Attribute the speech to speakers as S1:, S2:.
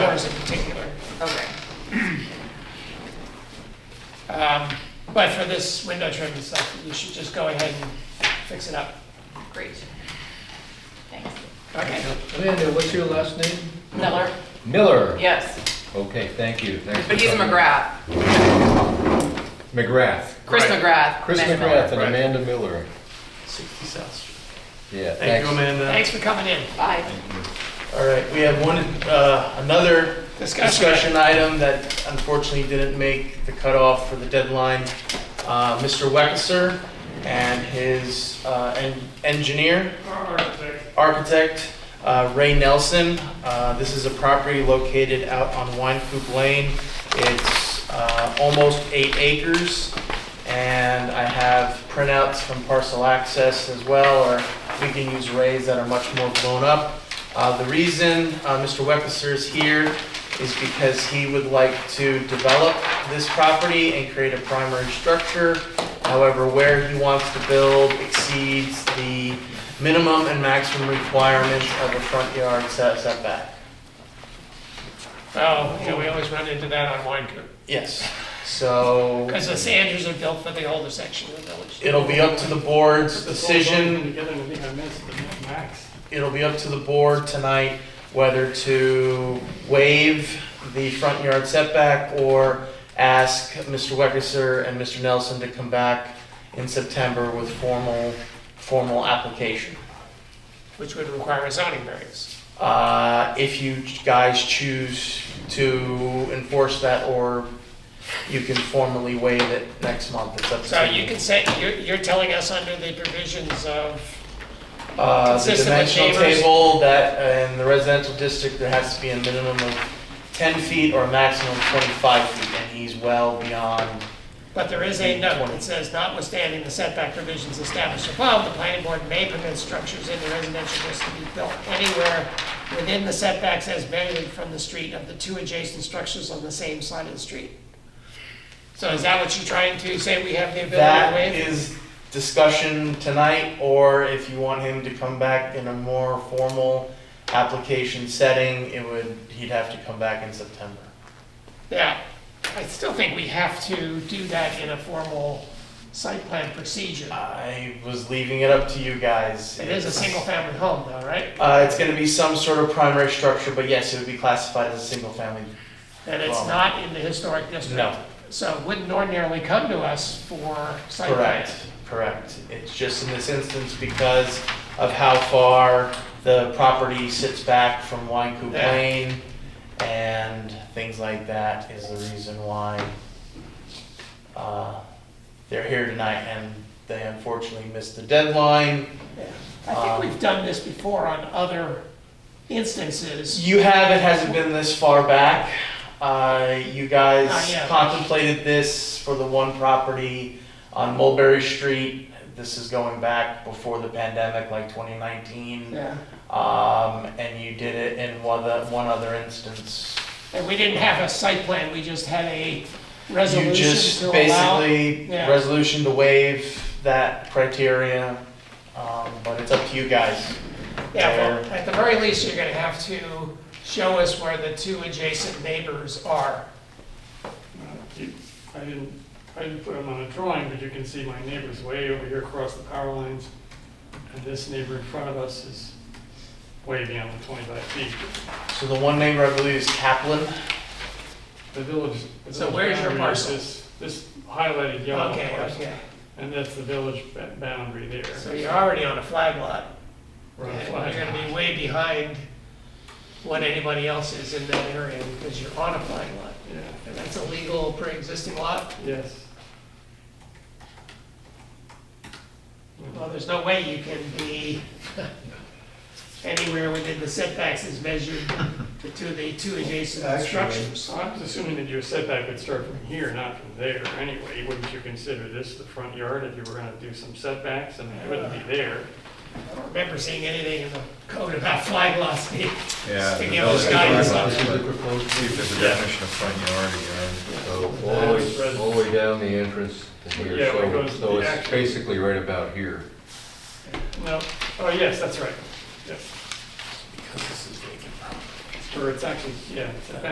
S1: house in particular.
S2: Okay,
S1: Um, But for this window trim and stuff, you should just go ahead and fix it up.
S2: great. Thanks.
S1: Okay.
S3: Amanda, what's your last name?
S2: Miller?
S3: Miller.
S2: Yes,
S3: Okay, thank you. Thanks for
S2: but he's a
S3: coming.
S2: McGrath,
S3: McGrath.
S2: Chris
S4: Right.
S2: McGrath.
S3: Chris
S2: Amanda
S3: McGrath and
S4: right.
S3: Amanda Miller.
S4: 60 South Street.
S3: Yeah,
S4: Thank you,
S3: thanks.
S4: Amanda.
S1: Thanks for coming in.
S2: Miller. Bye.
S4: All right, we have one, uh, another
S1: Discussion.
S4: discussion item that unfortunately didn't make the cutoff for the deadline. Uh, Mr. Wexler and his uh, en- engineer, architect, uh, Ray Nelson. Uh, This is a property located out on Wine Coop Lane. It's uh, almost eight acres, and I have printouts from parcel access as well, or we can use rays that are much more blown up. Uh, The reason uh, Mr. Wexler is here is because he would like to develop this property and create a primary structure. However, where he wants to build exceeds the minimum and maximum requirements of a front yard set- setback.
S1: Oh, yeah, we always run into that on Wine Coop.
S4: Yes, so
S1: Because the Sanders are built for the older section of the village.
S4: it'll be up to the board's decision,
S5: Decision. Together, I think I missed the max.
S4: it'll be up to the board tonight whether to waive the front yard setback or ask Mr. Wexler and Mr. Nelson to come back in September with formal, formal application.
S1: Which would require a zoning variance.
S4: Uh, if you guys choose to enforce that, or you can formally waive it next month, it's up to you.
S1: So you can say, you're, you're telling us under the provisions of,
S4: Uh, the
S1: consistent with
S4: dimensional
S1: neighbors.
S4: table that, uh, in the residential district, there has to be a minimum of ten feet or a maximum of twenty-five feet, and he's well beyond,
S1: but there is a note that says notwithstanding the setback provisions established above, the planning board may permit structures in the residential district to be built anywhere within the setbacks as measured from the street of the two adjacent structures on the same side of the street. So is that what you're trying to say, we have the ability to
S4: that
S1: waive?
S4: is discussion tonight, or if you want him to come back in a more formal application setting, it would, he'd have to come back in September.
S1: Yeah, I still think we have to do that in a formal site plan procedure.
S4: I was leaving it up to you guys.
S1: It is a
S4: It's-
S1: single-family home though, right?
S4: Uh, it's gonna be some sort of primary structure, but yes, it would be classified as a single family.
S1: And it's
S4: Well-
S1: not in the historic district. So it wouldn't ordinarily come to us for site plan.
S4: Correct, correct. It's just in this instance because of how far the property sits back from Wine Coop
S1: Yeah.
S4: Lane and things like that is the reason why, uh, they're here tonight and they unfortunately missed the deadline.
S1: I
S4: Um,
S1: think we've done this before on other instances.
S4: You have, it hasn't been this far back. Uh, you guys
S1: Not yet.
S4: contemplated this for the one property on Mulberry Street. This is going back before the pandemic, like 2019.
S1: Yeah,
S4: Um, and you did it in one other, one other instance.
S1: and we didn't have a site plan, we just had a
S4: You just
S1: resolution to allow.
S4: basically,
S1: yeah.
S4: resolution to waive that criteria. Um, but it's up to you guys.
S1: Yeah, well, at the very least, you're gonna have to show us where the two adjacent neighbors are.
S5: You- I didn't, I didn't put them on a drawing, but you can see my neighbor's way over here across the power lines. And this neighbor in front of us is way beyond the 25 feet.
S4: So the one neighbor I believe is Kaplan.
S5: The village. the
S1: So
S5: village
S1: where's your
S5: boundary is
S1: parcel?
S5: This this highlighted yellow
S1: Okay,
S5: parcel.
S1: okay,
S5: And that's the village ba- boundary there.
S1: so you're already on a flag lot.
S5: We're on a
S1: And
S5: flag.
S1: you're gonna be way behind what anybody else is in that area because you're on a flag lot.
S5: Yeah,
S1: And that's a legal pre-existing lot.
S5: yes.
S1: Well, there's no way you can be anywhere within the setbacks as measured to the two adjacent structures.
S5: So I was assuming that your setback would start from here, not from there anyway. Wouldn't you consider this the front yard if you were gonna do some setbacks and it wouldn't be there?
S1: I don't remember seeing anything in the code about flag lots being
S6: Yeah. the
S1: sticking out as
S6: building
S1: guidance.
S3: uh,
S6: guidelines,
S1: on it.
S6: but See if there's a definition of front yard again.
S3: So all the way, all the way down the entrance to here,
S5: Yeah, where it
S3: so,
S5: goes
S3: so
S5: the
S3: it's
S5: actual-
S3: basically right about here.
S5: No, oh, yes, that's right, yes.
S4: Because this is vacant
S5: Or it's actually, yeah, it's a